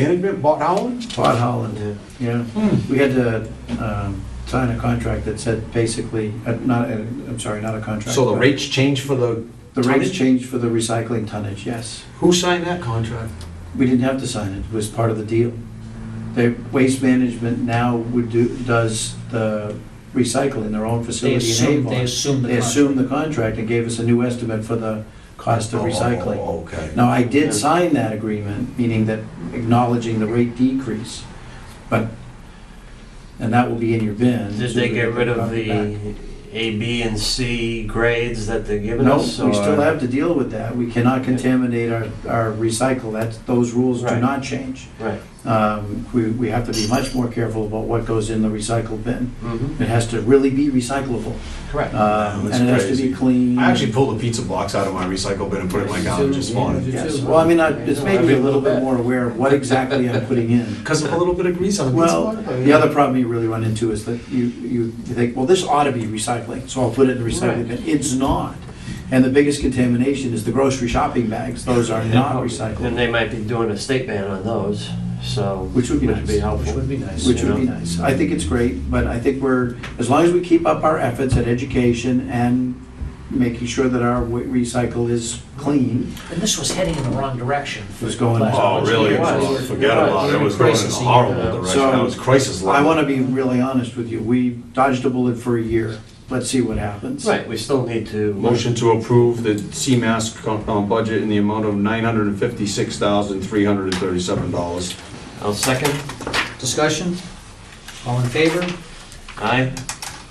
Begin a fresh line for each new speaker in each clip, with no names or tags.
Management, Bot Howland?
Todd Holland, uh, yeah. We had to um, sign a contract that said basically, uh, not, uh, I'm sorry, not a contract.
So the
but
rates change for the,
The rates
tonnage?
changed for the recycling tonnage, yes.
who signed that contract?
We didn't have to sign it, it was part of the deal. The waste management now would do, does the recycling in their own
They
facility in
assume,
Avon.
they assume the
They
contract.
assumed the contract and gave us a new estimate for the cost of recycling.
Oh, Okay.
Now, I did sign that agreement, meaning that acknowledging the rate decrease, but, and that will be in your bin.
Did they get rid of the A, B, and C grades that they're giving
No, we
us?
still
or-
have to deal with that. We cannot contaminate our, our recycle. That's, those rules do
Right.
not change.
Right.
Um, We, we have to be much more careful about what goes in the recycle bin.
Mm-hmm.
It has to really be recyclable.
Correct.
Um,
That's
And it has to
crazy.
be clean.
I actually pulled a pizza box out of my recycle bin and put it in my garden this morning.
Yes, well, I mean, I- it's made me a little bit more aware of what exactly I'm putting in.
Because of a little bit of grease on a pizza
Well,
box?
the other problem you really run into is that you, you you think, well, this ought to be recycling, so I'll put it in the recycling bin. It's not. And the biggest contamination is the grocery shopping bags. Those are not
And
recyclable,
they might be doing a state ban on those, so.
Which would be nice.
helpful.
Which would be nice.
which would be nice. I think it's great, but I think we're, as long as we keep up our efforts at education and making sure that our wa- recycle is clean,
And this was heading in the wrong direction.
It was going-
Last
Oh,
bunch of
really?
years.
Oh, Forget about it. It was going in a
Crisis.
horrible direction.
So,
That was crisis
I
level.
want to be really honest with you. We dodged a bullet for a year. Let's see what happens.
Right, we still need to.
Motion to approve the CMAS compound budget in the amount of $956,337.
I'll second.
Discussion? All in favor?
Aye.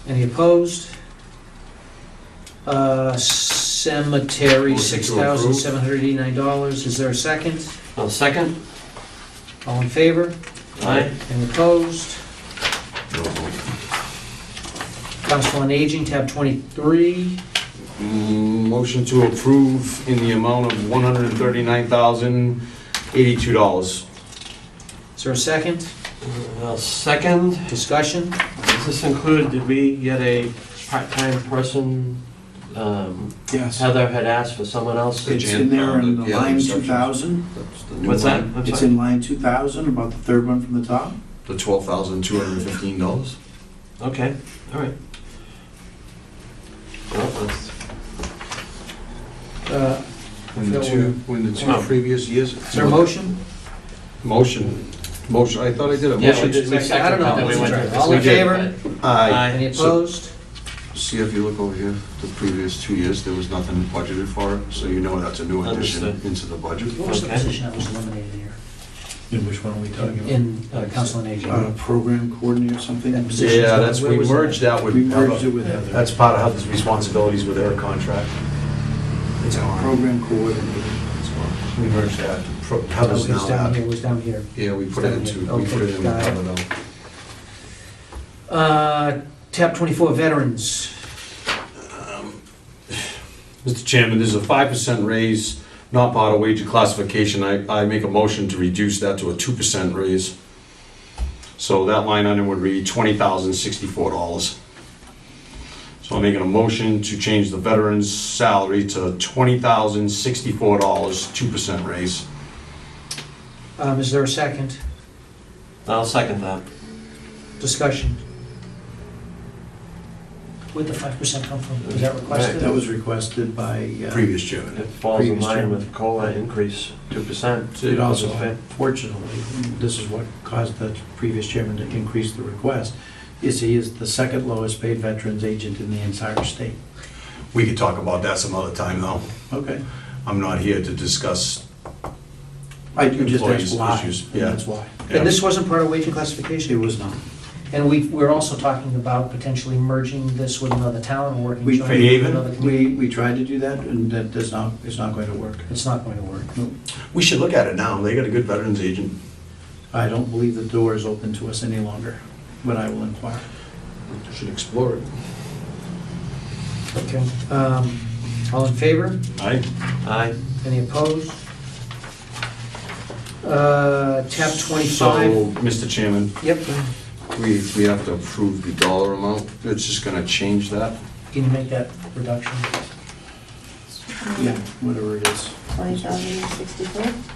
Any opposed? Uh, Cemetery,
Motion
six
to approve.
thousand seven hundred eighty-nine dollars. Is there a second?
I'll second.
All in favor?
Aye.
Any opposed? Council on Aging, tab twenty-three.
Mm, Motion to approve in the amount of $139,082.
Is there a second?
I'll second.
Discussion?
Does this include, did we get a part-time person? Um,
Yes.
Heather had asked for someone else.
It's in there in
Yeah,
line
reception.
2000.
That's the new
What's that?
one.
I'm
It's
sorry.
in line 2,000, about the third one from the top.
The $12,215.
Okay, all right. Well, that's.
Uh,
When the two, when the two
Oh.
previous years.
Is there a motion?
Motion, motion, I thought I did a
Yeah, we
motion.
did, we
I don't
seconded
know.
that, we went to-
All
in
we did.
favor?
Aye.
Any
Aye.
opposed?
See if you look over here, the previous two years, there was nothing budgeted for it, so you know that's a new addition
Understood.
into the budget.
What was the
Okay.
position that was eliminated here?
In which one are we talking about?
In uh, Council on Aging?
Uh, Program coordinator or something.
That position.
Yeah, that's,
Where
we
was
merged that with.
We merged it with Heather.
That's part of Heather's responsibilities with her contract.
It's our-
Program coordinator.
it's our-
We merged that. Pro-
Oh,
Heather's
It was
now
down
that.
here, it was down here.
Yeah, we put it into, we
Okay,
put it in the
got it.
cover though.
Uh, Tab 24, Veterans.
Mr. Chairman, there's a five percent raise, not part of wage classification. I, I make a motion to reduce that to a two percent raise. So that line item would read twenty thousand sixty-four dollars. So I'm making a motion to change the veteran's salary to twenty thousand sixty-four dollars, two percent raise.
Um, Is there a second?
I'll second that.
Discussion? Where'd the 5% come from? Was that requested?
That was requested by, uh,
Previous chairman.
It falls in
Previous
line
term.
with COLA increase, 2%.
it also, fortunately, this is what caused the previous chairman to increase the request, is he is the second lowest paid veterans agent in the entire state.
We could talk about that some other time though.
Okay.
I'm not here to discuss.
I, you just
Employees
asked why,
issues,
and
yeah.
that's why.
And this wasn't part of wage and classification?
It was not.
And we, we're also talking about potentially merging this with another town, or working
We-
jointly with
Haven?
another community.
We, we tried to do that, and that does not, it's not going to work.
It's not going to work.
We should look at it now. They got a good veterans agent.
I don't believe the door is open to us any longer, but I will inquire.
Should explore it.
Okay. Um, All in favor?
Aye.
Aye.
Any opposed? Uh, Tab 25.
So, Mr. Chairman,
Yep,
we, we have to approve the dollar amount. It's just gonna change that.
can you make that reduction?
Yeah, whatever it is.
Twenty thousand sixty-four?